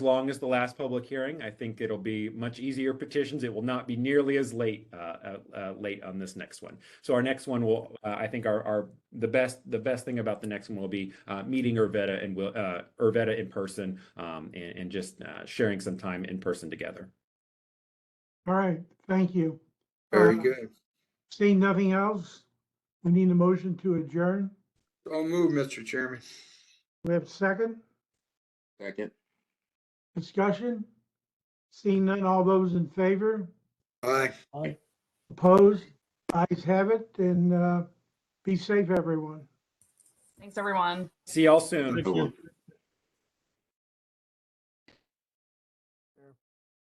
long as the last public hearing. I think it'll be much easier petitions. It will not be nearly as late, uh, uh, uh, late on this next one. So our next one will, uh, I think our, our, the best, the best thing about the next one will be, uh, meeting Urvetta and will, uh, Urvetta in person, um, and, and just, uh, sharing some time in person together. All right, thank you. Very Uh, good. Seeing nothing else, we need a motion to adjourn. Don't move, Mr. Chairman. We have a second Second. discussion. Seeing none, all those in favor, Aye. opposed, ayes have it, and uh, be safe, everyone. Thanks, everyone. See y'all soon. Cool.